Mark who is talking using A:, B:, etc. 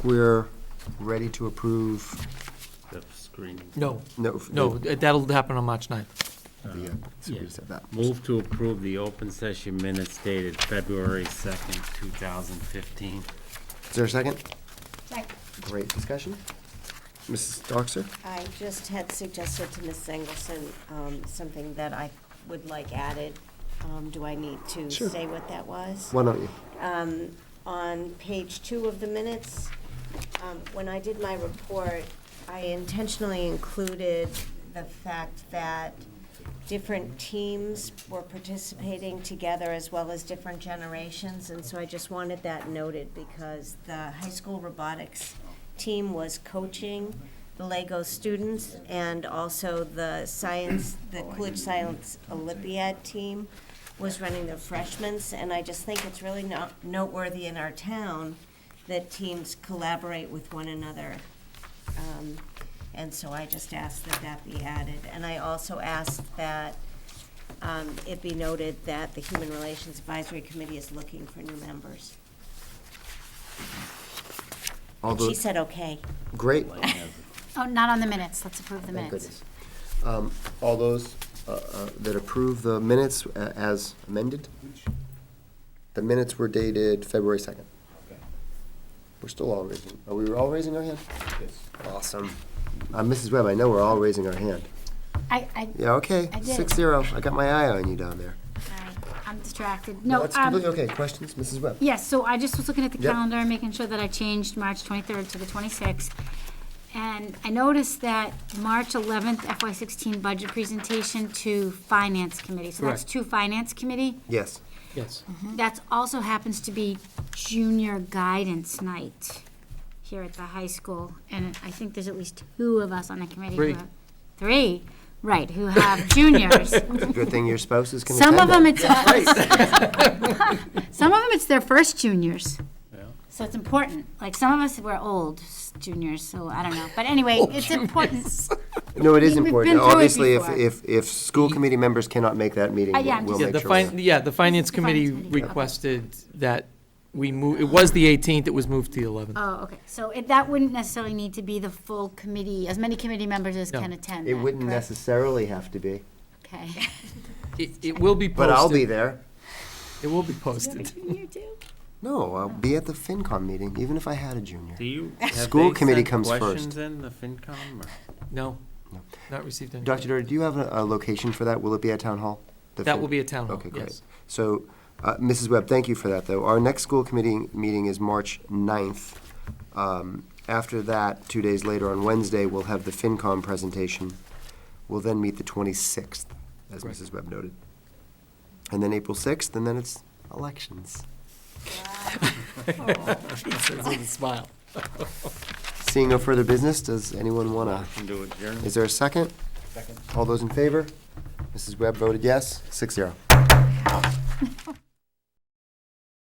A: we're ready to approve,
B: the screen.
C: No,
A: no. f-
C: no,
A: the-
C: that'll happen on March 9th.
A: the, uh, so we just have that.
B: Move to approve the open session minutes dated February 2nd, 2015.
A: Is there a second?
D: Second.
A: Great discussion. Mrs. Doxer?
D: I just had suggested to Ms. Engelson um, something that I would like added. Um, Do I need to
A: Sure.
D: say what that was?
A: Why don't you?
D: Um, On page two of the minutes, um, when I did my report, I intentionally included the fact that different teams were participating together as well as different generations, and so I just wanted that noted because the high school robotics team was coaching the Lego students and also the science, the Coolidge Science Olympiad team was running their freshmen's, and I just think it's really not noteworthy in our town that teams collaborate with one another. Um, And so I just asked that that be added. And I also asked that um, it be noted that the Human Relations Advisory Committee is looking for new members.
A: All
D: She
A: those,
D: said, okay.
A: great.
E: Oh, not on the minutes, let's approve the
A: Thank
E: minutes.
A: Oh, goodness. Um, All those uh, uh, that approve the minutes a- as amended? The minutes were dated February 2nd. We're still all raising, are we all raising our hand? Yes. Awesome. Uh, Mrs. Webb, I know we're all raising our hand.
E: I, I,
A: Yeah, okay,
E: I did.
A: six zero. I got my eye on you down there.
E: sorry, I'm distracted. No,
A: That's completely
E: um,
A: okay. Questions, Mrs. Webb?
E: yes, so I just was looking at the
A: Yep.
E: calendar and making sure that I changed March 23rd to the 26th. And I noticed that March 11th FY16 budget presentation to Finance Committee. So that's
C: Correct.
E: to Finance Committee.
A: Yes.
C: Yes.
A: Mm-hmm.
E: That also happens to be junior guidance night here at the high school. And I think there's at least two of us on the committee. who
C: Three.
E: have- Three, right, who have juniors.
A: Good thing your spouses can
E: Some of
A: attend
E: them,
A: that.
E: it's uh, some of them, it's their first juniors. So it's important. Like some of us were old s- juniors, so I don't know. But anyway, it's important.
A: No, it is
E: We've been
A: important.
E: through it
A: Obviously, if,
E: before.
A: if, if school committee members cannot make that meeting,
E: Uh, yeah,
A: we'll
E: I'm
A: we'll
E: just-
C: Yeah,
A: make
C: the
A: sure. we're-
C: fin, yeah, the finance
E: the finance
C: committee
E: committee, okay.
C: requested that we move, it was the 18th, it was moved to the 11th.
E: Oh, okay. So it, that wouldn't necessarily need to be the full committee, as many committee members as
C: No.
E: can attend.
A: It
E: then,
A: wouldn't
E: correct?
A: necessarily have to be,
E: Okay.
C: It, it will be posted.
A: but I'll be there.
C: It will be posted.
A: No, I'll be at the FinCom meeting, even if I had a junior.
B: Do you, have
A: School
B: they
A: committee
B: sent
A: comes
B: questions
A: first.
B: in the FinCom? or-
C: No,
A: No.
C: not received any.
A: Dr. Doherty, do you have a, a location for that? Will it be at Town Hall? The
C: That
A: Fin-
C: will be a town hall,
A: Okay, great.
C: yes.
A: So, uh, Mrs. Webb, thank you for that, though. Our next school committee meeting is March 9th. Um, After that, two days later, on Wednesday, we'll have the FinCom presentation. We'll then meet the 26th, as
C: Correct.
A: Mrs. Webb noted. And then April 6th, and then it's elections.
C: It says with a smile.
A: Seeing no further business, does anyone want to?
B: Motion to adjourn?
A: Is there a second? Second. All those in favor? Mrs. Webb voted yes, six zero.